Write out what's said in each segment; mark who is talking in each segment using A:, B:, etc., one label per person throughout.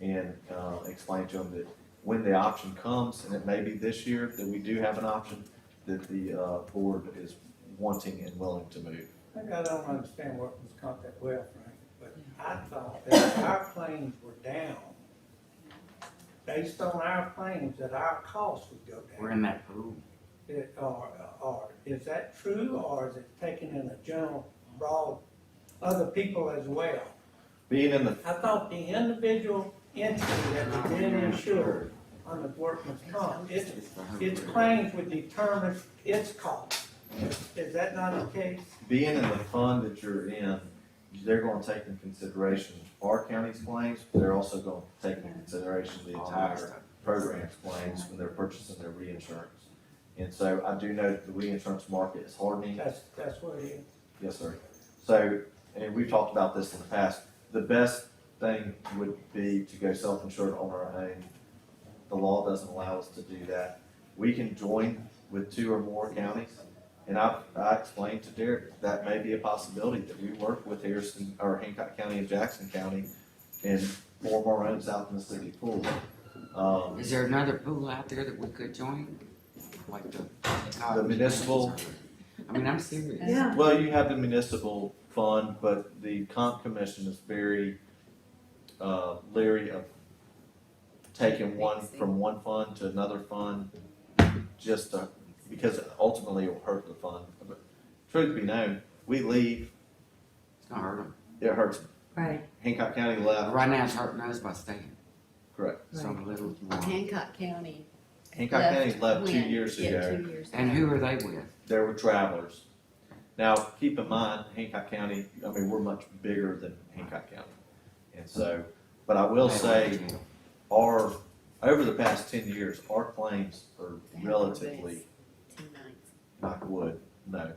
A: and, uh, explain to them that when the option comes, and it may be this year, that we do have an option that the, uh, board is wanting and willing to move.
B: Maybe I don't understand what was caught that well, Frank, but I thought that our claims were down. Based on our claims, that our costs would go
C: We're
B: down.
C: in that pool.
B: It- Or, or, is that true, or is it taken in a general, broad, other people as well?
A: Being in the,
B: I thought the individual entity that was being insured on the workman's comp, its, its claims would determine its cost. Is that not the case?
A: being in the fund that you're in, they're gonna take into consideration our county's claims, but they're also gonna take into consideration the entire program's claims when they're purchasing their reinsurance. And so I do know that the reinsurance market is hardening,
B: That's, that's what it is.
A: Yes, sir. So, and we've talked about this in the past, the best thing would be to go self-insured on our own. The law doesn't allow us to do that. We can join with two or more counties. And I, I explained to Derek, that may be a possibility that we work with Harrison, or Hancock County and Jackson County and form our own South Mississippi pool. Um,
C: Is there another pool out there that we could join? Like the.
A: The municipal-
C: I mean, I'm serious.
D: Yeah.
A: Well, you have the municipal fund, but the comp commission is very, uh, leery of taking one, from one fund to another fund, just to, because ultimately it will hurt the fund. But Truth be known, we leave,
C: It's gonna hurt them.
A: it hurts,
D: Right,
A: Hancock County left,
C: Right now, it's hurting us by staying,
A: correct.
C: so I'm a little.
D: Hancock County.
A: Hancock County left two
D: when?
A: years
D: Yeah,
A: ago,
D: two years
C: And
D: ago.
C: who are they with?
A: there were travelers. Now, keep in mind, Hancock County, I mean, we're much bigger than Hancock County. And so, but I will say, our, over the past ten years, our claims are
D: They have
A: relatively,
D: two nights.
A: knock wood, no,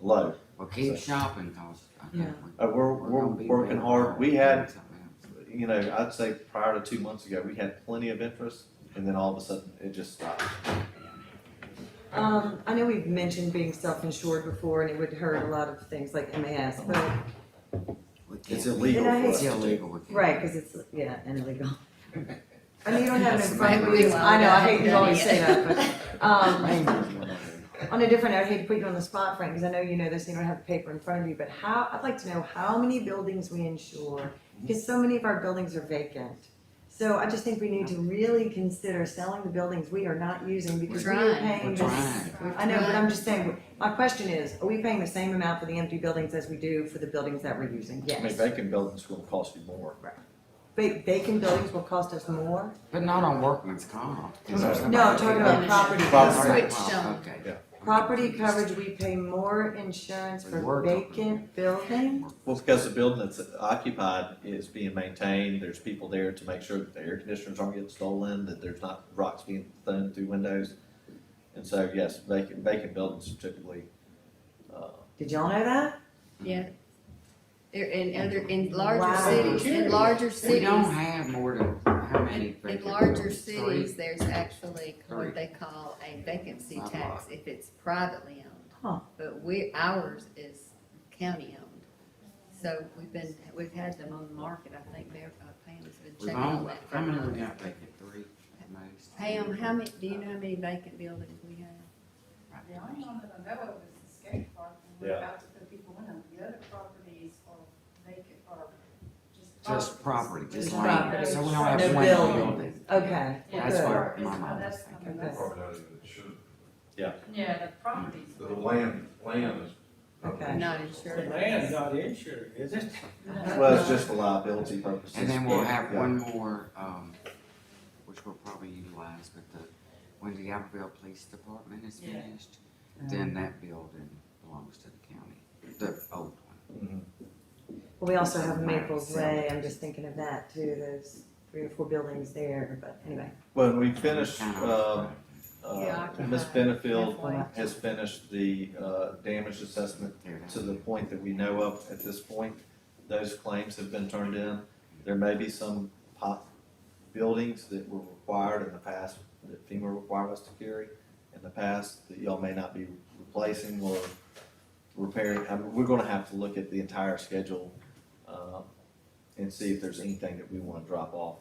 A: low.
C: Well, keep shopping, cause I think
D: Yeah.
C: we-
A: Uh, we're, we're
C: gonna be
A: working
C: better
A: hard.
C: off
A: We
C: doing
A: had,
C: something else.
A: you know, I'd say prior to two months ago, we had plenty of interest, and then all of a sudden, it just stopped.
E: Um, I know we've mentioned being self-insured before and it would hurt a lot of things like MAS, but,
C: We can't
A: It's
C: be-
A: illegal for
E: And I-
A: us
C: It's
A: to do.
C: illegal. we can't.
E: right, cause it's, yeah, and illegal. I know you don't have it
C: That's
E: in front of
D: maybe
E: you,
D: why
E: I know, I
D: we
E: hate you
D: haven't
E: always
D: done
E: say
D: it
E: that, but, um,
C: Rangers are illegal.
E: on a different, note, I'd hate to put you on the spot, Frank, cause I know you know this, you don't have the paper in front of you, but how, I'd like to know how many buildings we insure, cause so many of our buildings are vacant. So I just think we need to really consider selling the buildings we are not using because we are
D: trying.
E: paying
C: We're
E: this
C: trying.
E: I know, but I'm just saying, my question is, are we paying the same amount for the empty buildings as we do for the buildings that we're using?
A: I mean,
E: Yes.
A: vacant buildings will cost you more.
E: Ba- Vacant buildings will cost us more?
C: But not on workman's comp.
E: No, I'm talking about property
A: Property.
E: coverage.
D: Switched on.
C: Okay.
A: Yeah.
E: Property coverage, we pay more insurance
C: We
E: for
C: work on it.
E: vacant buildings?
A: Well, because the building that's occupied is being maintained, there's people there to make sure that the air conditioners aren't getting stolen, that there's not rocks being thrown through windows. And so, yes, vacant, vacant buildings are typically, uh,
E: Did y'all know that?
D: Yeah. There, in other, in
E: Wow.
D: larger cities, in larger
C: We
D: cities,
C: don't have more than how many?
D: in
C: vacant
D: larger
C: buildings? Three?
D: cities, there's actually
C: Three.
D: what they call a vacancy
C: Not a
D: tax if it's privately
E: Huh.
D: owned. But we, ours is county owned. So we've been, we've had them on the market, I think Mayor, uh, Pam's been
C: We've
D: checking on
C: only,
D: that. for
C: how
D: a
C: many we
D: while.
C: got vacant? Three at most.
D: Pam, how many, do you know how many vacant buildings we have?
F: The only one that I know of is the skate park, and we're
A: Yeah.
F: about to put people in them, the other properties are vacant, are just.
C: Just property,
F: properties.
C: just
E: Just
C: land.
E: property.
C: So we don't have
E: No
C: one
E: building.
C: building.
E: Okay,
F: Yeah,
C: That's
E: good.
C: where
F: it's-
C: my mind
F: that's-
C: was
F: I mean,
E: thinking.
F: that's-
G: Probably not even insured.
F: Yeah, the properties.
G: uh, The land, land is.
E: Okay.
D: Not
B: The
D: insured.
B: land's not insured, is it?
A: well, it's just for liability purposes.
C: And then we'll have
A: Yeah.
C: one more, um, which we'll probably utilize, but the, when the Albertville Police Department is
F: Yeah.
C: finished, then that building belongs to the county, the old one.
A: Mhm.
E: Well, We also have Maples Way, I'm just thinking of that too, those three or four buildings there, but anyway.
A: When we finish,
C: Kind of
A: um,
C: occupied.
A: uh,
D: Yeah,
A: Ms.
D: occupied.
A: Benefield
D: Halfway.
A: has finished the, uh, damage assessment
C: There it
A: to
C: is.
A: the point that we know of at this point. Those claims have been turned in. There may be some pop buildings that were required in the past, that FEMA required us to carry in the past, that y'all may not be replacing or repairing. I mean, we're gonna have to uh, look at the entire schedule, um, and see if there's anything that we wanna drop off